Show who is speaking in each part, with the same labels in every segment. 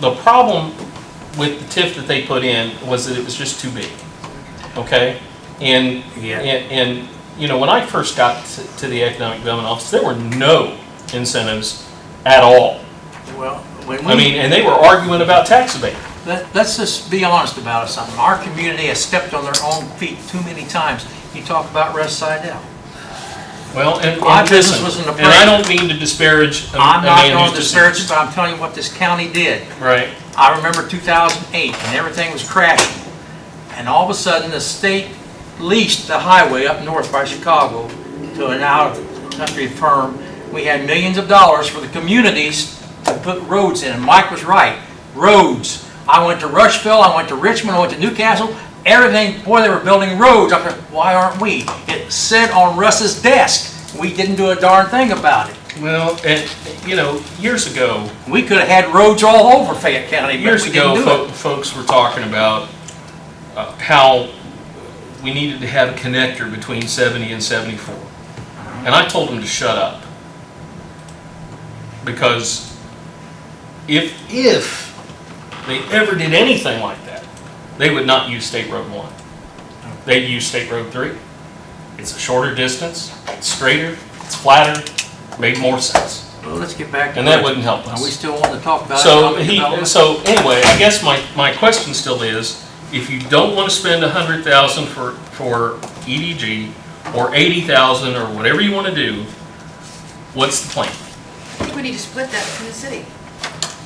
Speaker 1: the problem with the TIF that they put in was that it was just too big, okay? And,
Speaker 2: Yeah.
Speaker 1: and, and, you know, when I first got to- to the Economic Development Office, there were no incentives at all.
Speaker 2: Well, when
Speaker 1: I mean,
Speaker 2: we,
Speaker 1: and they were arguing about tax abatement.
Speaker 2: let- let's just be honest about it, something. Our community has stepped on their own feet too many times. You talk about Russ Sidell.
Speaker 1: Well, and,
Speaker 2: My
Speaker 1: and
Speaker 2: business
Speaker 1: listen,
Speaker 2: was in the
Speaker 1: and I don't mean to disparage a a
Speaker 2: I'm not
Speaker 1: man
Speaker 2: going
Speaker 1: who's
Speaker 2: to
Speaker 1: deceased.
Speaker 2: search, but I'm telling you what this county did.
Speaker 1: Right,
Speaker 2: I remember 2008, and everything was crashing. And all of a sudden, the state leased the highway up north by Chicago to an out-of-country firm. We had millions of dollars for the communities to put roads in, and Mike was right, roads. I went to Rushville, I went to Richmond, I went to Newcastle, everything, boy, they were building roads. I thought, why aren't we? It said on Russ's desk, we didn't do a darn thing about it.
Speaker 1: well, and, you know, years ago,
Speaker 2: We could have had roads all over Fayette County, but
Speaker 1: Years
Speaker 2: we didn't
Speaker 1: ago,
Speaker 2: do it.
Speaker 1: fo- folks were talking about uh, how we needed to have a connector between 70 and 74. And I told them to shut up. Because if, if they ever did anything like that, they would not use State Road 1. They'd use State Road 3. It's a shorter distance, it's straighter, it's flatter, made more sense.
Speaker 2: Well, let's get back to
Speaker 1: And that
Speaker 2: Russ.
Speaker 1: wouldn't help us.
Speaker 2: Are we still wanting to talk about
Speaker 1: So
Speaker 2: economic
Speaker 1: he,
Speaker 2: development?
Speaker 1: so anyway, I guess my, my question still is, if you don't want to spend a hundred thousand for, for EDG, or eighty thousand, or whatever you want to do, what's the plan?
Speaker 3: I think we need to split that from the city.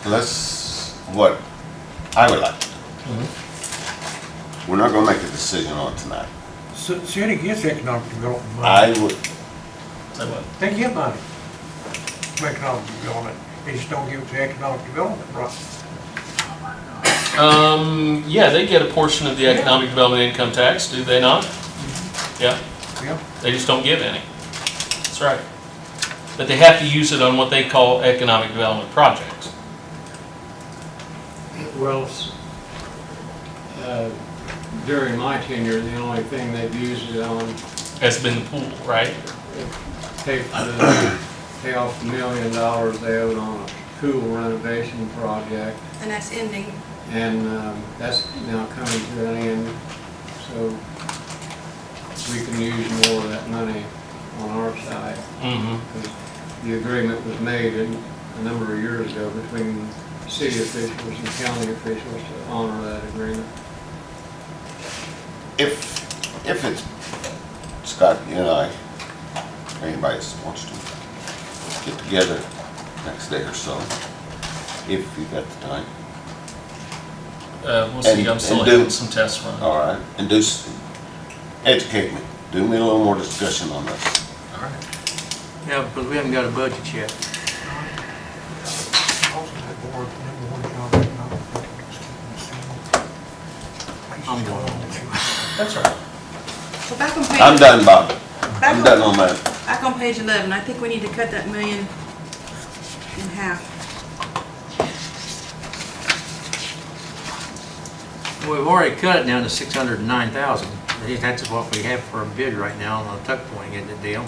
Speaker 4: Let's, what I would like to do. We're not gonna make a decision on it tonight.
Speaker 5: C- City gets economic development money.
Speaker 4: I would,
Speaker 1: Say what?
Speaker 5: They get money from economic development. They just don't give it to economic development, right?
Speaker 1: Um, yeah, they get a portion of the economic development income tax, do they not? Yeah,
Speaker 5: Yeah.
Speaker 1: they just don't give any. That's right. But they have to use it on what they call economic development projects.
Speaker 6: Well, s- uh, during my tenure, the only thing they've used it on,
Speaker 1: That's been the pool, right?
Speaker 6: pay for the, pay off the million dollars they owed on a pool renovation project.
Speaker 3: And that's ending.
Speaker 6: And um, that's now coming to an end, so we can use more of that money on our side.
Speaker 1: Mm-hmm.
Speaker 6: The agreement was made in- a number of years ago between city officials and county officials to honor that agreement.
Speaker 4: if, if it's, Scott, you and I, or anybody else wants to, get together next day or so, if you got the time,
Speaker 1: Uh, we'll see,
Speaker 4: And-
Speaker 1: I'm still
Speaker 4: and do-
Speaker 1: having some tests run.
Speaker 4: all right? And do, s- educate me, do me a little more discussion on this.
Speaker 2: Yeah, because we haven't got a budget yet.
Speaker 5: Also, that board, number one job, economic development is keeping the city.
Speaker 2: I'm going on.
Speaker 1: That's right.
Speaker 3: So back on page.
Speaker 4: I'm done, Bob.
Speaker 3: back
Speaker 4: I'm
Speaker 3: on-
Speaker 4: done on that.
Speaker 3: Back on page 11, I think we need to cut that million in half.
Speaker 2: We've already cut it down to 609,000. I think That's what we have for a bid right now on the tuck pointing in the deal.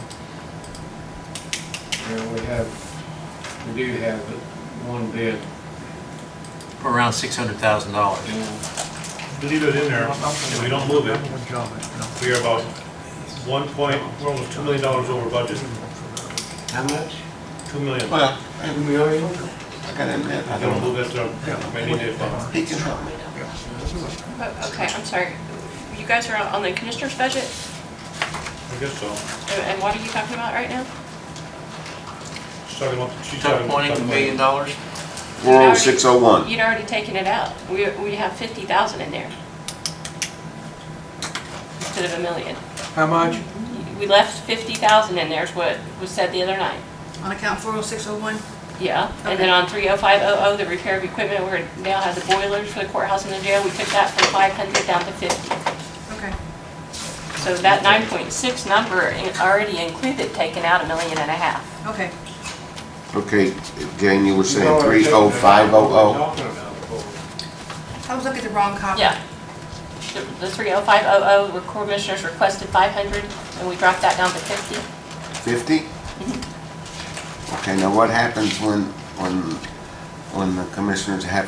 Speaker 6: Yeah, we have, we do have it, one bid,
Speaker 2: for Around $600,000.
Speaker 6: and
Speaker 7: leave it in there, and we don't move it,
Speaker 5: Number one job, economic
Speaker 7: we are about one point, we're almost two million dollars over budget,
Speaker 6: how much?
Speaker 7: two million.
Speaker 4: Well,
Speaker 6: Two million?
Speaker 4: I gotta admit, I
Speaker 7: I don't
Speaker 4: don't,
Speaker 7: move it, uh, maybe it, uh,
Speaker 4: he can help me.
Speaker 8: Oh, Okay, I'm sorry. You guys are on the commissioner's budget,
Speaker 7: I guess so.
Speaker 8: and- and what are you talking about right now?
Speaker 7: She's talking about, she's
Speaker 2: Tuck
Speaker 7: talking about.
Speaker 2: pointing, a million dollars.
Speaker 4: Four oh six oh one.
Speaker 8: You'd already taken it out. We, we have 50,000 in there. Instead of a million.
Speaker 5: How much?
Speaker 8: We left 50,000 in there is what was said the other night.
Speaker 3: On account 40601,
Speaker 8: Yeah, and then on 30500, the repair of equipment, we're now have the boilers for the courthouse and the jail. We took that from 500 down to 50.
Speaker 3: okay.
Speaker 8: So that 9.6 number in- already included taking out a million and a half.
Speaker 3: Okay,
Speaker 4: Okay, Jane, you were saying three oh five oh
Speaker 3: I was looking at the wrong copy.
Speaker 8: Yeah. The the 30500, where commissioners requested 500, and we dropped that down to 50.
Speaker 4: oh, fifty? Okay, now what happens when, when, when the commissioners have